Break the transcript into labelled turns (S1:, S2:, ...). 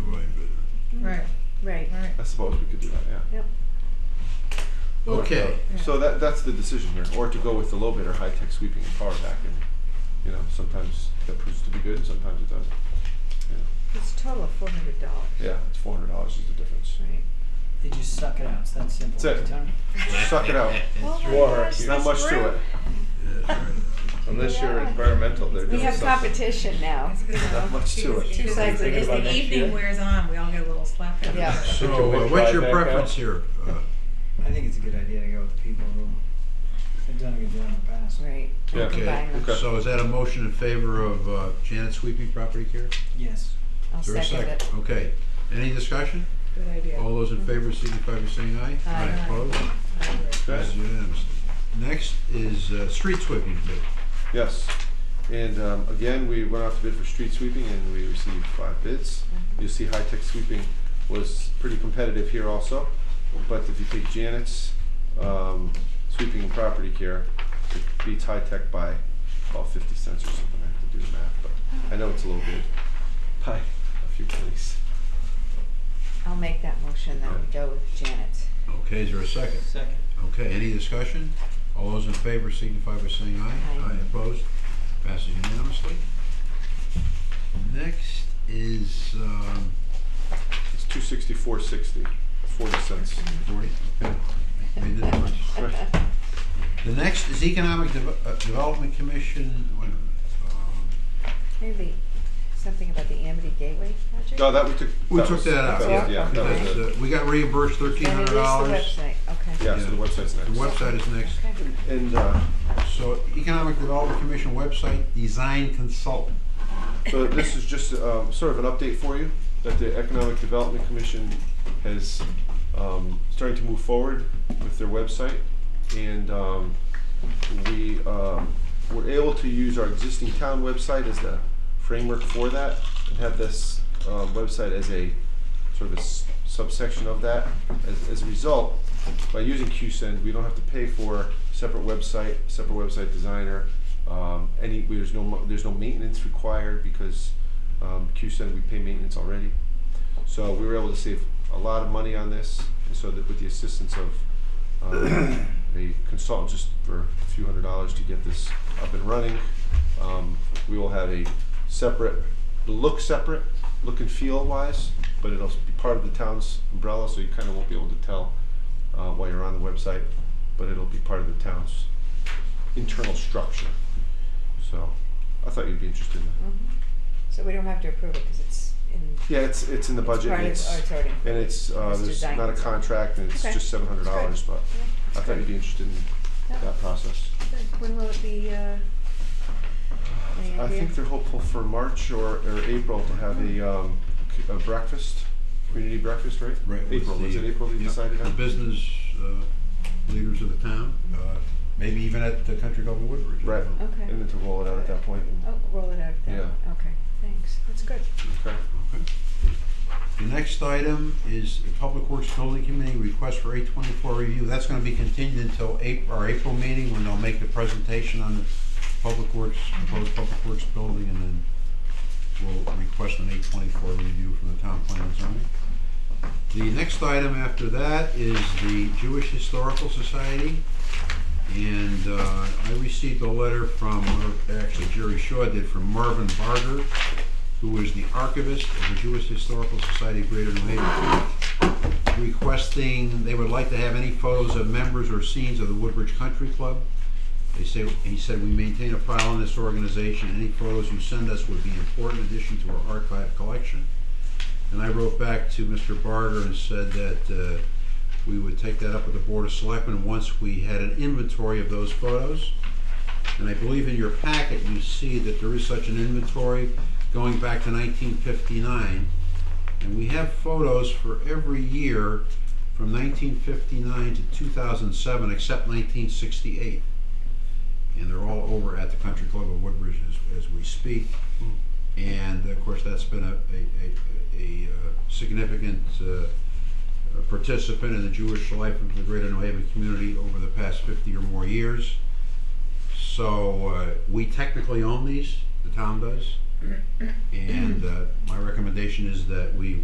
S1: I suppose we could do that, yeah.
S2: Yep.
S3: Okay.
S1: So that, that's the decision here, or to go with the low bid or high-tech sweeping and power vac, and, you know, sometimes that proves to be good, and sometimes it doesn't.
S2: It's a total of four hundred dollars.
S1: Yeah, it's four hundred dollars is the difference.
S2: Right.
S4: They just suck it out. It's that simple.
S1: That's it.
S4: Tony.
S1: Suck it out.
S2: Oh my
S5: Water.
S2: gosh,
S5: It's
S1: Not
S2: this
S1: much to
S2: room.
S1: it.
S5: Unless you're
S2: Yeah.
S5: environmental, they're
S2: We
S5: doing
S2: have
S5: something.
S2: competition now.
S1: Not much to it.
S6: Two sides of
S5: Thinking
S6: it. As the
S5: about next
S6: evening
S5: year.
S6: wears on, we all get a little slap. on the
S2: Yeah.
S6: wrist.
S3: So,
S5: Can we
S3: uh, what's
S5: try
S3: your
S5: back out?
S3: preference here? Uh,
S4: I think it's a good idea to go with the people who have done a good job in the past.
S2: Right.
S1: Yeah.
S3: Okay,
S2: Combine them.
S1: Okay.
S3: so is that a motion in favor of uh, Janet sweeping property care?
S4: Yes.
S2: I'll
S3: Is there a
S2: second it.
S3: Okay, any discussion?
S6: Good idea.
S3: All those in favor signify by saying aye.
S2: Aye.
S3: Opposed?
S6: I agree.
S3: Passes unanimously. Next is uh, street sweeping bid.
S1: Yes, and um, again, we went out to bid for street sweeping and we received five bids. You'll see high-tech sweeping was pretty competitive here also, but if you take Janet's um, sweeping and property care, it beats high-tech by about fifty cents or something, I have to do the math, but I know it's a little bit, by a few pennies.
S2: I'll make that motion that we go with Janet's.
S3: Okay, is there a second?
S4: Second.
S3: Okay, any discussion? All those in favor signify by saying aye.
S2: Aye.
S3: Opposed? Passes unanimously. Next is um,
S1: It's two sixty-four sixty, forty cents.
S3: forty. Okay. We did it once. The next is Economic Deve- uh, Development Commission. wait a minute, um,
S2: Maybe something about the Amity Gateway project?
S1: No, Oh, that we took.
S3: We
S1: that
S3: took
S1: was-
S3: that out,
S1: was-
S2: yeah,
S1: Yeah, that was
S3: Because
S1: it.
S3: uh, we got reimbursed thirteen
S2: Then
S3: hundred
S2: release the
S3: dollars.
S2: website, okay.
S1: Yeah, so the website's
S3: The
S1: next.
S3: website is next.
S2: Okay.
S1: And, uh,
S3: So Economic Development Commission website, design consultant.
S1: So this is just um, sort of an update for you, that the Economic Development Commission has um, starting to move forward with their website. And um, we um, were able to use our existing town website as the framework for that and have this um, website as a sort of a s- subsection of that. As, as a result, by using QSend, we don't have to pay for separate website, separate website designer. Um, any there's no mo- there's no maintenance required because um, QSend we pay maintenance already. So we were able to save a lot of money on this, and so that with the assistance of um, a consultant just for a few hundred dollars to get this up and running, um, we will have a separate look separate look and feel wise, but it'll be part of the town's umbrella, so you kind of won't be able to tell uh, while you're on the website, but it'll be part of the town's internal structure. So I thought you'd be interested in that.
S2: Mhm. So we don't have to approve it because it's in.
S1: Yeah, it's it's in the budget.
S2: Part
S1: and
S2: of,
S1: it's-
S2: oh, it's already.
S1: and it's, uh,
S2: It's
S1: there's
S2: designed.
S1: not a contract, and it's
S2: Okay.
S1: just seven hundred
S2: That's
S1: dollars, but
S2: Yeah,
S1: I
S2: that's
S1: thought you'd
S2: good.
S1: be interested in
S2: Yeah.
S1: that process.
S2: Good. When will it be, uh, any
S1: I
S2: idea?
S1: think they're hopeful for March or, or April to have a, um, c-
S2: Mm-hmm.
S1: a breakfast, community breakfast, right?
S3: Right, with
S1: April, was
S3: the-
S1: it April they
S3: yep,
S1: decided
S3: The
S1: on?
S3: business uh, leaders of the town, uh, maybe even at the Country Club of Woodbridge.
S1: Right.
S2: Okay.
S1: And then to roll it out at that point, and-
S2: Oh, roll it out then.
S1: Yeah.
S2: Okay, thanks. That's good.
S1: okay?
S3: Okay. The next item is the Public Works Building Committee request for eight twenty-four review. That's gonna be continued until April, our April meeting, when they'll make the presentation on the Public Works, proposed Public Works building, and then we'll request an eight twenty-four review from the town plan and zoning. The next item after that is the Jewish Historical Society. And uh, I received a letter from, or actually Jerry Shaw did, from Marvin Barger, who is the archivist of the Jewish Historical Society of Greater New Haven, requesting they would like to have any photos of members or scenes of the Woodbridge Country Club. They say, he said, we maintain a file in this organization, any photos you send us would be an important addition to our archive collection. And I wrote back to Mr. Barger and said that uh, we would take that up with the Board of Selectmen once we had an inventory of those photos. And I believe in your packet, you see that there is such an inventory going back to nineteen fifty-nine. And we have photos for every year from nineteen fifty-nine to two thousand seven, except nineteen sixty-eight. And they're all over at the Country Club of Woodbridge as, as we speak. And of course, that's been a, a, a, a uh, significant, uh, a participant in the Jewish life of the greater New Haven community over the past 50 or more years. So uh, we technically own these, the town does. And uh, my recommendation is that we